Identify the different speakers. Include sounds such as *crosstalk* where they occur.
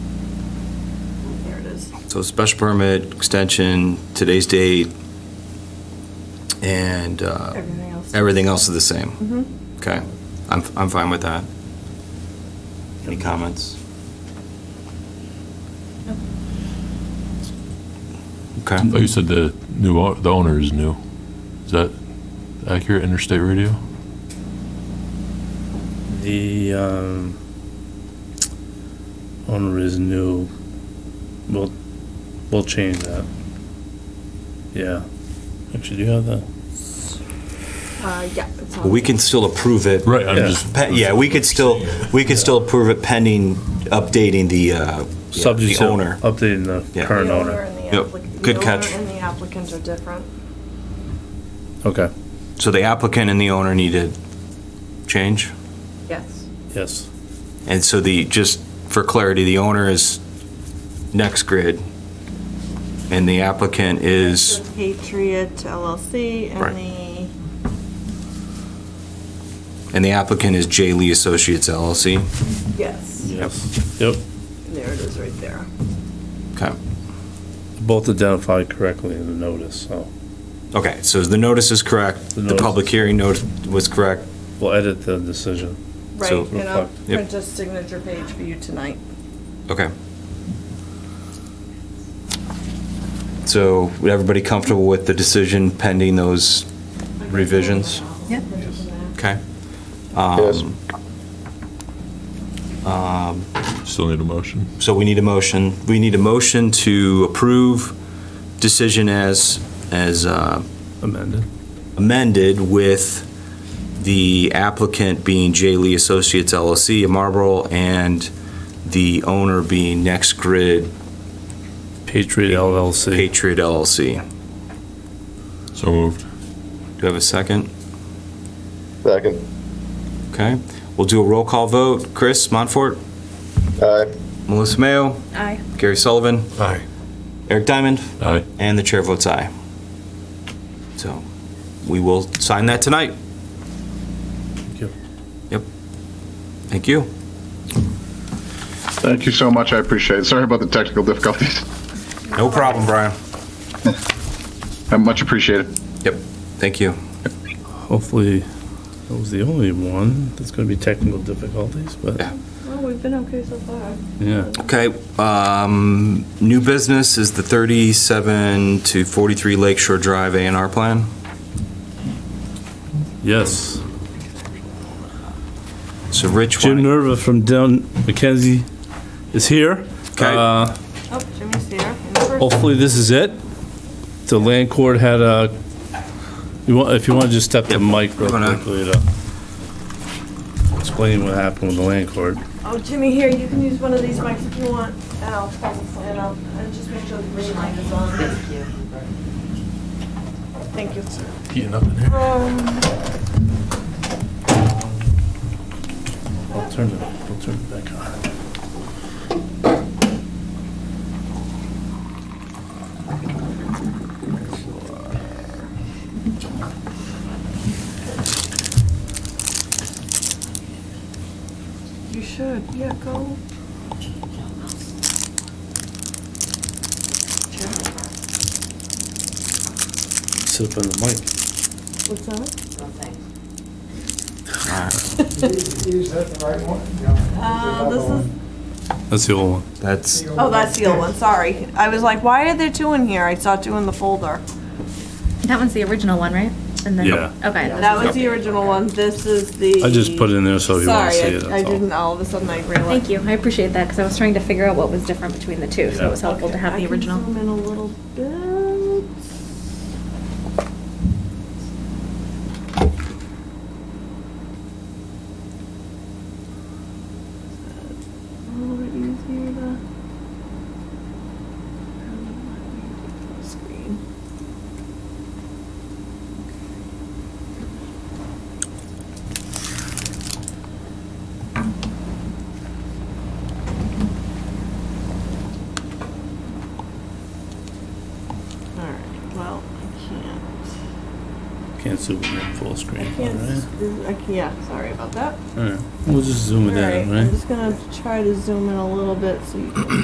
Speaker 1: is.
Speaker 2: So special permit, extension, today's date, and uh,
Speaker 3: Everything else.
Speaker 2: everything else is the same?
Speaker 3: Mhm.
Speaker 2: Okay, I'm, I'm fine with that. Any comments? Okay.
Speaker 4: I thought Oh, you said the new, o- the owner is new. Is that accurate, Interstate Radio?
Speaker 5: The um, owner is new. We'll, we'll change that. Yeah. Actually, do you have that?
Speaker 3: Uh, yeah. it's on.
Speaker 2: We can still approve it.
Speaker 4: Right, I'm
Speaker 5: Yeah.
Speaker 4: just.
Speaker 2: Pe- Yeah, we could still, we could still approve it pending updating the, uh, yeah,
Speaker 5: Subject
Speaker 2: the
Speaker 5: to
Speaker 2: owner.
Speaker 5: Updating the
Speaker 2: Yeah.
Speaker 3: The
Speaker 5: current
Speaker 3: owner
Speaker 5: owner.
Speaker 3: and the
Speaker 2: Yep,
Speaker 3: applic-
Speaker 2: good
Speaker 3: the
Speaker 2: catch.
Speaker 3: owner and the applicant are different.
Speaker 5: Okay,
Speaker 2: So the applicant and the owner need to change?
Speaker 3: Yes.
Speaker 5: yes.
Speaker 2: And so the, just for clarity, the owner is Next Grid, and the applicant is,
Speaker 3: The Patriot LLC
Speaker 2: Right.
Speaker 3: and the,
Speaker 2: and the applicant is J. Lee Associates LLC.
Speaker 3: yes,
Speaker 5: Yes. Yep,
Speaker 3: there it is right there.
Speaker 2: Okay.
Speaker 5: both identified correctly in the notice, so
Speaker 2: Okay, so the notice is correct,
Speaker 5: The
Speaker 2: the public
Speaker 5: notice.
Speaker 2: hearing notice was correct.
Speaker 5: we'll edit the decision.
Speaker 3: Right,
Speaker 2: So-
Speaker 3: and I'll
Speaker 2: Yep.
Speaker 3: print a signature page for you tonight.
Speaker 2: Okay. So, everybody comfortable with the decision pending those revisions?
Speaker 3: Yep.
Speaker 2: Okay.
Speaker 6: Yes.
Speaker 2: Um,
Speaker 4: Still need a motion.
Speaker 2: So we need a motion, we need a motion to approve decision as, as uh,
Speaker 5: Amended.
Speaker 2: amended with the applicant being J. Lee Associates LLC of Marlboro and the owner being Next Grid
Speaker 5: Patriot LLC.
Speaker 2: Patriot LLC.
Speaker 4: So moved.
Speaker 2: Do I have a second?
Speaker 6: Second.
Speaker 2: Okay, we'll do a roll call vote. Chris Montfort,
Speaker 6: Aye.
Speaker 2: Melissa Mayo,
Speaker 3: Aye.
Speaker 2: Gary Sullivan,
Speaker 6: Aye.
Speaker 2: Eric Diamond,
Speaker 4: Aye.
Speaker 2: and the chair votes aye. So we will sign that tonight.
Speaker 5: Thank you.
Speaker 2: Yep. Thank you.
Speaker 6: Thank you so much. I appreciate it. Sorry about the technical difficulties. *laughs*
Speaker 2: No problem, Brian.
Speaker 6: I much appreciated.
Speaker 2: Yep, thank you.
Speaker 5: Hopefully, that was the only one that's gonna be technical difficulties, but
Speaker 2: Yeah.
Speaker 3: Well, we've been okay so far.
Speaker 5: yeah.
Speaker 2: Okay, um, new business is the 37 to 43 Lakeshore Drive A and R plan.
Speaker 5: Yes.
Speaker 2: So Rich, why
Speaker 5: Jim
Speaker 2: don't-
Speaker 5: Nerva from Down Mackenzie is here.
Speaker 2: Okay.
Speaker 5: Uh,
Speaker 3: Oh, Jimmy's here. in
Speaker 2: Oh.
Speaker 3: person.
Speaker 5: Hopefully, this is it. The land court had a, you want, if you want to just step to the mic real
Speaker 2: Go on.
Speaker 5: quickly to explain what happened with the land court.
Speaker 3: Oh, Jimmy, here, you can use one of these mics if you want, and I'll pull the plan out, and just make sure the green light is on. Thank you. Thank you. Um,
Speaker 4: Heating up in here.
Speaker 5: I'll turn it, I'll turn it back on.
Speaker 3: You should, yeah, go.
Speaker 5: Sit up on the mic.
Speaker 3: What's that?
Speaker 7: Is that the right one? Yeah.
Speaker 3: Uh, this is,
Speaker 5: That's the old one.
Speaker 2: that's,
Speaker 3: oh, that's the old one, sorry. I was like, why are there two in here? I saw two in the folder.
Speaker 8: That one's the original one, right? And then,
Speaker 5: Yeah.
Speaker 8: Okay.
Speaker 3: That was the original one, this is the.
Speaker 5: I just put it in there so if you want to see it,
Speaker 3: Sorry, I- I
Speaker 5: that's all.
Speaker 3: didn't, all of a sudden I realized.
Speaker 8: Thank you. I appreciate that because I was trying to figure out what was different between the two, so it was helpful to have
Speaker 3: I
Speaker 8: the
Speaker 3: can
Speaker 8: original.
Speaker 3: Zoom in a little bit. A little bit easier to. Screen. All right, well, I can't.
Speaker 5: Can't zoom it in full
Speaker 3: I
Speaker 5: screen, all
Speaker 3: can't,
Speaker 5: right?
Speaker 3: screw- I can, yeah, sorry about that.
Speaker 5: All right, we'll just zoom
Speaker 3: All
Speaker 5: it
Speaker 3: right,
Speaker 5: in, right?
Speaker 3: I'm just gonna try to zoom in a little bit so you can